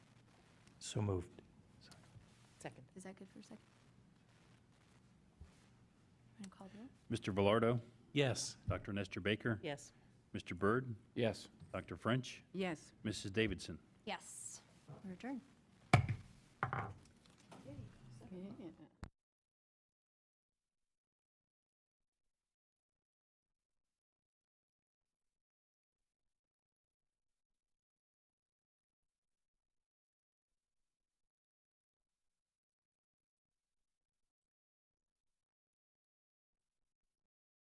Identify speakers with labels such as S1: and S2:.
S1: So moved.
S2: Second.
S3: Is that good for a second? I'm gonna call the roll.
S4: Mr. Velardo,
S1: Yes.
S4: Dr. Nestor Baker,
S2: Yes.
S4: Mr. Byrd,
S5: Yes.
S4: Dr. French,
S2: Yes.
S4: Mrs. Davidson.
S3: Yes, we're adjourned.